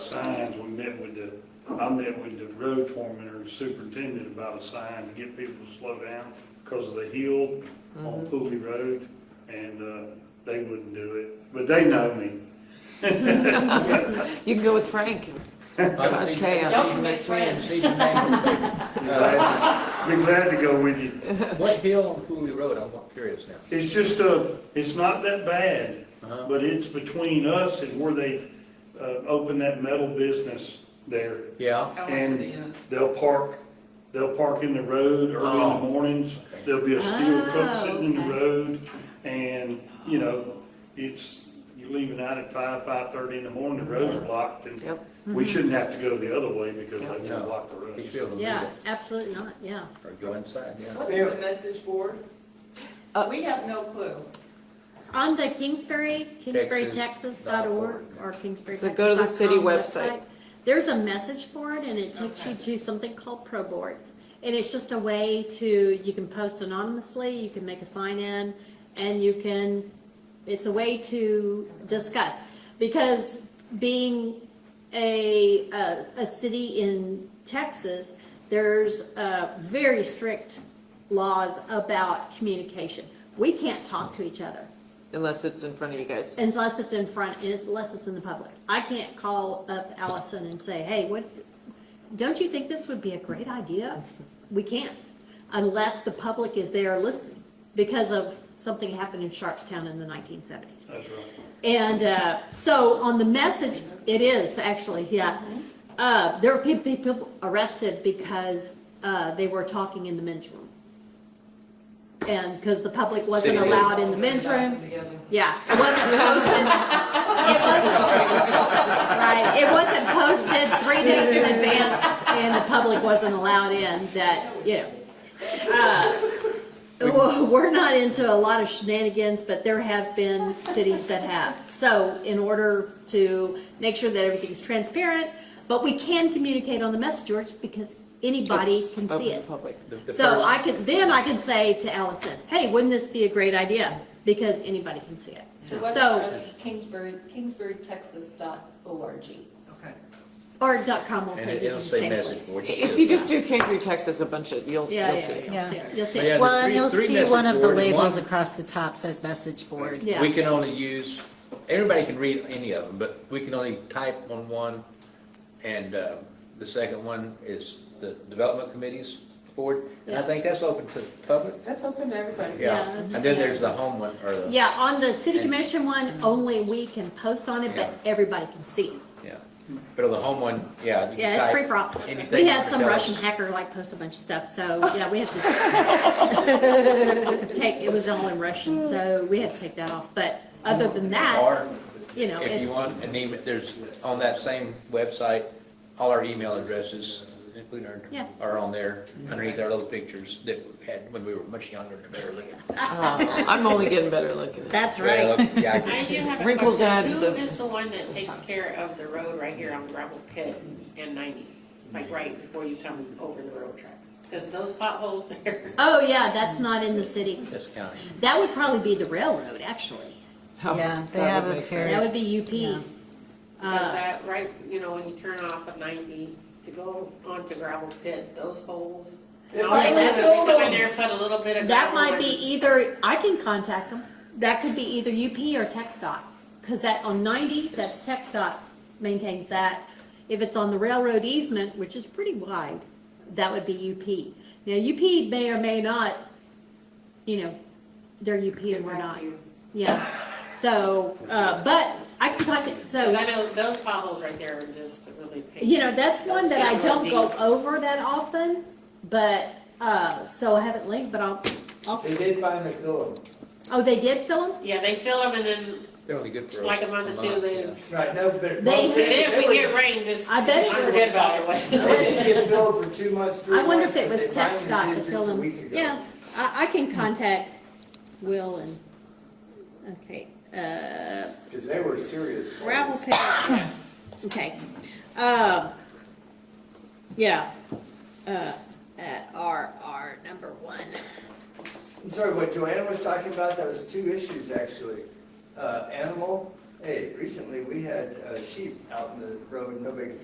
signs, we met with the, I met with the road foreman or superintendent about a sign to get people to slow down because of the hill on Pooley Road, and, uh, they wouldn't do it, but they know me. You can go with Frank. That's chaos. Don't commit Next week. friends. Be glad be glad to go with you. What hill on Cooley Road, I'm curious now. It's just a, it's not that bad, Uh-huh. but it's between us and where they, uh, opened that metal business there. Yeah, Oh, I see the, uh, And they'll park, they'll park in the road early in the Oh. mornings, there'll be a steel truck Oh, sitting in the okay. road, and, you know, it's, you're leaving out at five, five-thirty in the morning, the road's blocked, and Yep. we Mm-hmm. shouldn't have to go the other way because they Yeah. won't block the road. Peachfield will do Yeah, that, absolutely not, yeah. or go inside, yeah. What is the message board? Uh, We have no clue. On the Kingsbury, Texas dot org. kingsburytexas.org or kingsbury. So go to the city website. There's a message board and it takes you to something called Pro Boards. And it's just a way to, you can post anonymously, you can make a sign in, and you can, it's a way to discuss. Because being a, a, a city in Texas, there's, uh, very strict laws about communication. We can't talk to each other Unless it's in front of you guys. unless it's in front, unless it's in the public. I can't call up Allison and say, hey, what, don't you think this would be a great idea? We can't, unless the public is there listening, because of something happened in Sharpstown in the nineteen seventies. That's right. And, uh, so on the message, it is actually, yeah. Uh, there were people, people arrested because, uh, they were talking in the men's room. And, because the public wasn't City. allowed in the men's room. Together. Yeah, it wasn't posted. It wasn't, right, it wasn't posted three days in advance and the public wasn't allowed in that, you know. Uh, well, We're not into a lot of shenanigans, but there have been cities that have. So in order to make sure that everything's transparent, but we can communicate on the message boards because anybody It's can open see to it. Public. The- the So first- I can, then I can say to Allison, hey, wouldn't this be a great idea? Because anybody can see it. The web So- address is Kingsbury, kingsburytexas.org. Okay. Or dot com will And take it- you it'll to the say same message place. board. If you just do Canterbury, Texas, a bunch of, you'll, Yeah, you'll yeah, see yeah, it. you'll see it, you'll see Yeah, it. the Well, and three- you'll three see message one of the board and labels one- across the top says message board. Yeah. We can only use, everybody can read any of them, but we can only type on one. And uh, the second one is the Development Committees Board, and I Yeah. think that's open to the public. That's open to everybody. Yeah, that's- and then there's the home one, or the, Yeah, on the city And- commission one, only we can post on it, but everybody can see. it. yeah. But on the home one, yeah. you can Yeah, it's type free for all. anything We had some that Russian does. hacker like post a bunch of stuff, so, yeah, we had to take, it was all in Russian, so we had to take that off. But other than that, Or you know, If it's, you want an email, there's, on that same website, all our email addresses, including our, Yeah. are on there, underneath our little pictures that we had when we were much younger and better looking. Oh, I'm only getting better looking. that's Yeah, right. look, yeah, I I do can- have a Wrinkles question. adds Who the- is the one that takes care of the road right here on gravel pit and ninety? Like right before you come over the road tracks? Because those potholes there, Oh, yeah, that's not in the city. That's county. That would probably be the railroad, actually. Oh, Yeah, they that have would a make sense. pair. That would be UP. Yeah. Uh. because that right, you know, when you turn off at ninety to go onto gravel pit, those holes. It's All they like do is that. come in there and put a little bit of. That gravel might be e- in. either, I can contact them, that could be either UP or TechStop, because that, on ninety, that's TechStop maintains that. If it's on the railroad easement, which is pretty wide, that would be UP. Now, UP may or may not, you know, they're UP and we're not, yeah. So, uh, but I can contact, so. Because I know those potholes right there are just really. painful. You know, that's one that I Those don't get real go deep. over that often, but, uh, so I haven't linked, but I'll, I'll, They did finally fill them. oh, they did fill them? Yeah, they fill them and then They're only good for. like a month or two, yeah. then, Right, no, but. They- most- then if we were- get rain, just, I bet it I'm would. good about They didn't it. get filled for two months, three I months. wonder if it but was they tech finally stock did that just filled a them. week ago. Yeah, I, I can contact Will and, okay, uh, Cause they were serious. gravel ones. pit, okay. Um, yeah, uh, at R, R number one. I'm sorry, what Joanna was talking about, that was two issues actually. Uh, animal Hey, recently we had uh, sheep out in the road, nobody could